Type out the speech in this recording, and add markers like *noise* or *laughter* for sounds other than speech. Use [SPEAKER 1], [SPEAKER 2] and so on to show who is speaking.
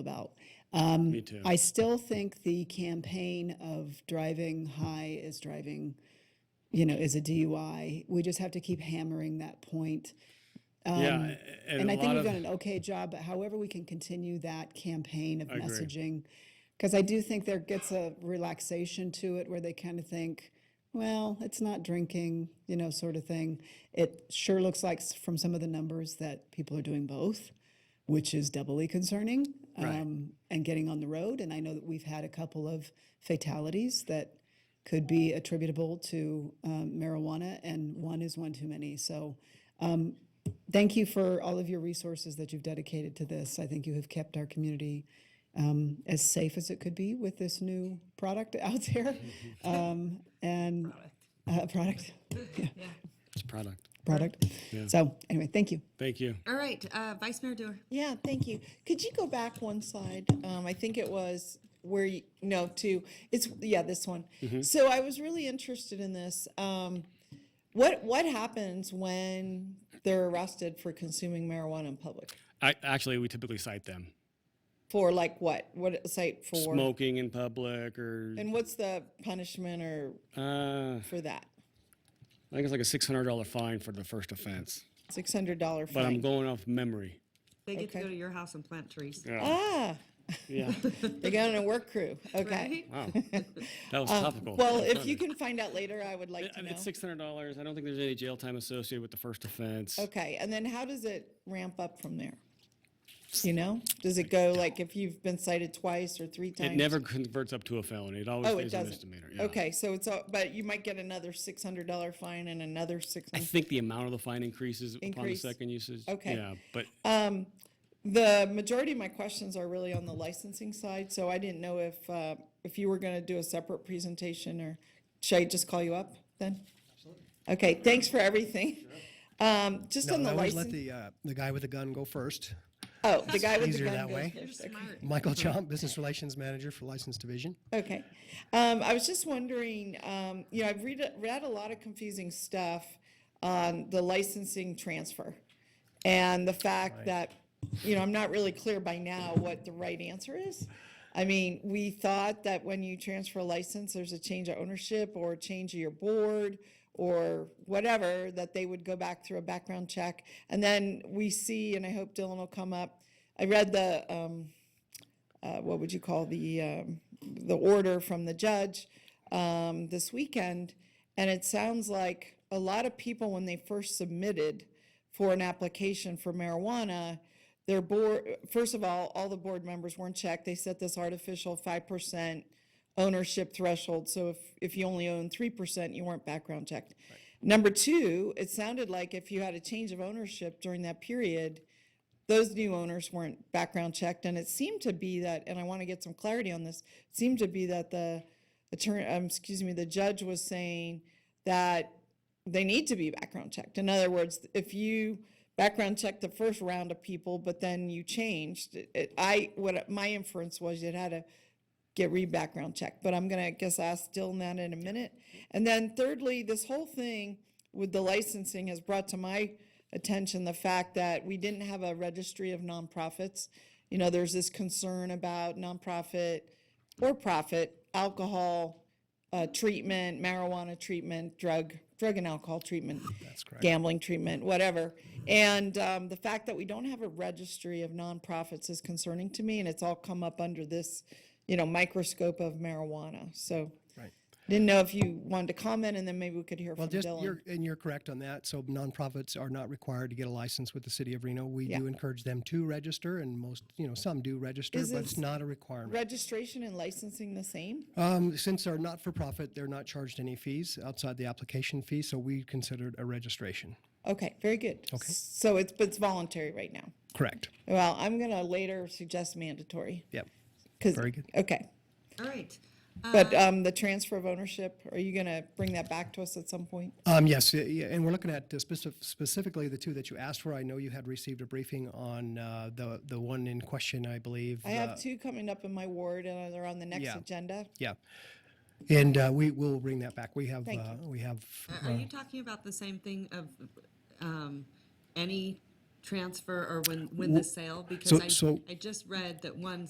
[SPEAKER 1] about. Um,
[SPEAKER 2] Me too.
[SPEAKER 1] I still think the campaign of driving high is driving, you know, is a DUI. We just have to keep hammering that point.
[SPEAKER 2] yeah,
[SPEAKER 1] Um,
[SPEAKER 2] and,
[SPEAKER 1] and
[SPEAKER 2] a
[SPEAKER 1] I think
[SPEAKER 2] lot
[SPEAKER 1] we've
[SPEAKER 2] of
[SPEAKER 1] done an okay job, but however we can continue that campaign of
[SPEAKER 2] agree.
[SPEAKER 1] messaging, because I do think there gets a relaxation to it where they kind of think, well, it's not drinking, you know, sort of thing. It sure looks like s- from some of the numbers that people are doing both, which is doubly concerning.
[SPEAKER 2] Right.
[SPEAKER 1] Um, and getting on the road, and I know that we've had a couple of fatalities that could be attributable to um, marijuana, and one is one too many. So thank you for all of your resources that you've dedicated to this. I think you have kept our community um, as safe as it could be with this new product *laughs* out there. Um, and uh, product, yeah,
[SPEAKER 2] it's product.
[SPEAKER 1] product. So, anyway, thank you.
[SPEAKER 2] Thank you.
[SPEAKER 3] All right, uh, Vice Mayor Dewar.
[SPEAKER 4] Yeah, thank you. Could you go back one slide? Um, I think it was where you, no, two, it's, yeah, this one. So I was really interested in this. Um, what, what happens when they're arrested for consuming marijuana in public?
[SPEAKER 2] I, actually, we typically cite them
[SPEAKER 4] For like what? What site for?
[SPEAKER 2] smoking in public, or
[SPEAKER 4] And what's the punishment or
[SPEAKER 2] uh, I
[SPEAKER 4] for that?
[SPEAKER 2] think it's like a six hundred dollar fine for the first offense.
[SPEAKER 4] Six hundred dollar
[SPEAKER 2] But I'm
[SPEAKER 4] fine.
[SPEAKER 2] going off memory.
[SPEAKER 3] They get to
[SPEAKER 4] Okay.
[SPEAKER 3] go to your house and plant trees.
[SPEAKER 4] Ah, *laughs*
[SPEAKER 2] Yeah,
[SPEAKER 4] they got on a work crew. Okay.
[SPEAKER 3] Right?
[SPEAKER 2] that was topical.
[SPEAKER 4] Um, Well, if you can find out later, I would like
[SPEAKER 2] I
[SPEAKER 4] to
[SPEAKER 2] mean,
[SPEAKER 4] know.
[SPEAKER 2] it's six hundred dollars. I don't think there's any jail time associated with the first offense.
[SPEAKER 4] Okay, and then how does it ramp up from there? You know, does it go like if you've been cited twice or three times?
[SPEAKER 2] It never converts up to a felony. It always
[SPEAKER 4] Oh, it
[SPEAKER 2] stays a
[SPEAKER 4] doesn't.
[SPEAKER 2] misdemeanor. yeah.
[SPEAKER 4] Okay, so it's, a- but you might get another six hundred dollar fine and another six.
[SPEAKER 2] I think the amount of the fine increases upon the
[SPEAKER 4] Increase.
[SPEAKER 2] second usage.
[SPEAKER 4] Okay.
[SPEAKER 2] Yeah, but
[SPEAKER 4] The majority of my questions are really on the licensing side, so I didn't know if, uh, if you were gonna do a separate presentation or should I just call you up then? Okay, thanks for everything. Um, just
[SPEAKER 5] No,
[SPEAKER 4] on
[SPEAKER 5] I
[SPEAKER 4] the
[SPEAKER 5] always let
[SPEAKER 4] license,
[SPEAKER 5] the, uh, the guy with the gun go first.
[SPEAKER 4] oh, the guy with the
[SPEAKER 5] easier
[SPEAKER 4] gun
[SPEAKER 5] that
[SPEAKER 4] goes
[SPEAKER 5] way.
[SPEAKER 3] You're
[SPEAKER 4] first, okay.
[SPEAKER 3] smart.
[SPEAKER 4] *laughs*
[SPEAKER 5] Michael Chomp, Business Relations Manager for License Division.
[SPEAKER 4] Okay. Um, I was just wondering, um, you know, I've read, read a lot of confusing stuff on the licensing transfer and the fact that, you know, I'm not really clear by now what the right answer is. I mean, we thought that when you transfer a license, there's a change of ownership or a change of your board or whatever, that they would go back through a background check. And then we see, and I hope Dylan will come up, I read the, um, uh, what would you call the, um, the order from the judge um, this weekend. And it sounds like a lot of people, when they first submitted for an application for marijuana, their board, first of all, all the board members weren't checked. They set this artificial five percent ownership threshold. So if, if you only own three percent, you weren't background checked. Number two, it sounded like if you had a change of ownership during that period, those new owners weren't background checked, and it seemed to be that, and I want to get some clarity on this, it seemed to be that the attorney, um, excuse me, the judge was saying that they need to be background checked. In other words, if you background checked the first round of people, but then you changed, it- it, I, what, my inference was it had to get re-background checked, but I'm gonna, I guess, ask Dylan that in a minute. And then thirdly, this whole thing with the licensing has brought to my attention the fact that we didn't have a registry of nonprofits. You know, there's this concern about nonprofit or profit alcohol uh, treatment, marijuana treatment, drug, drug and alcohol
[SPEAKER 5] *laughs*
[SPEAKER 4] treatment. That's correct. Gambling treatment, whatever. And um, the fact that we don't have a registry of nonprofits is concerning to me, and it's all come up under this, you know, microscope of marijuana. So
[SPEAKER 5] Right.
[SPEAKER 4] didn't know if you wanted to comment, and then maybe we could hear
[SPEAKER 5] Well,
[SPEAKER 4] from
[SPEAKER 5] just,
[SPEAKER 4] Dylan.
[SPEAKER 5] you're, and you're correct on that. So nonprofits are not required to get a license with the city of Reno. We
[SPEAKER 4] Yeah.
[SPEAKER 5] do encourage them to register and most, you know, some do register,
[SPEAKER 4] Is
[SPEAKER 5] but
[SPEAKER 4] it
[SPEAKER 5] it's not a requirement.
[SPEAKER 4] Registration and licensing the same?
[SPEAKER 5] Um, since they're not for profit, they're not charged any fees outside the application fee, so we consider it a registration.
[SPEAKER 4] Okay, very good. Okay. So it's, but it's voluntary right now.
[SPEAKER 5] Correct.
[SPEAKER 4] Well, I'm gonna later suggest mandatory.
[SPEAKER 5] Yep.
[SPEAKER 4] 'cause-
[SPEAKER 5] Very good.
[SPEAKER 4] Okay,
[SPEAKER 3] All right.
[SPEAKER 4] but um, the transfer of ownership, are you gonna bring that back to us at some point?
[SPEAKER 5] Um, yes, y- yeah, and we're looking at uh, specif- specifically the two that you asked for. I know you had received a briefing on uh, the the one in question, I believe.
[SPEAKER 4] I
[SPEAKER 5] uh,
[SPEAKER 4] have two coming up in my ward and they're on the next
[SPEAKER 5] Yeah.
[SPEAKER 4] agenda.
[SPEAKER 5] Yeah, and uh, we will bring that back. We have
[SPEAKER 4] Thank
[SPEAKER 5] uh, we have
[SPEAKER 3] Uh, Are you talking about the same thing of um, any transfer or when, when the sale? Because
[SPEAKER 5] So-
[SPEAKER 3] I,
[SPEAKER 5] so-
[SPEAKER 3] I just read that one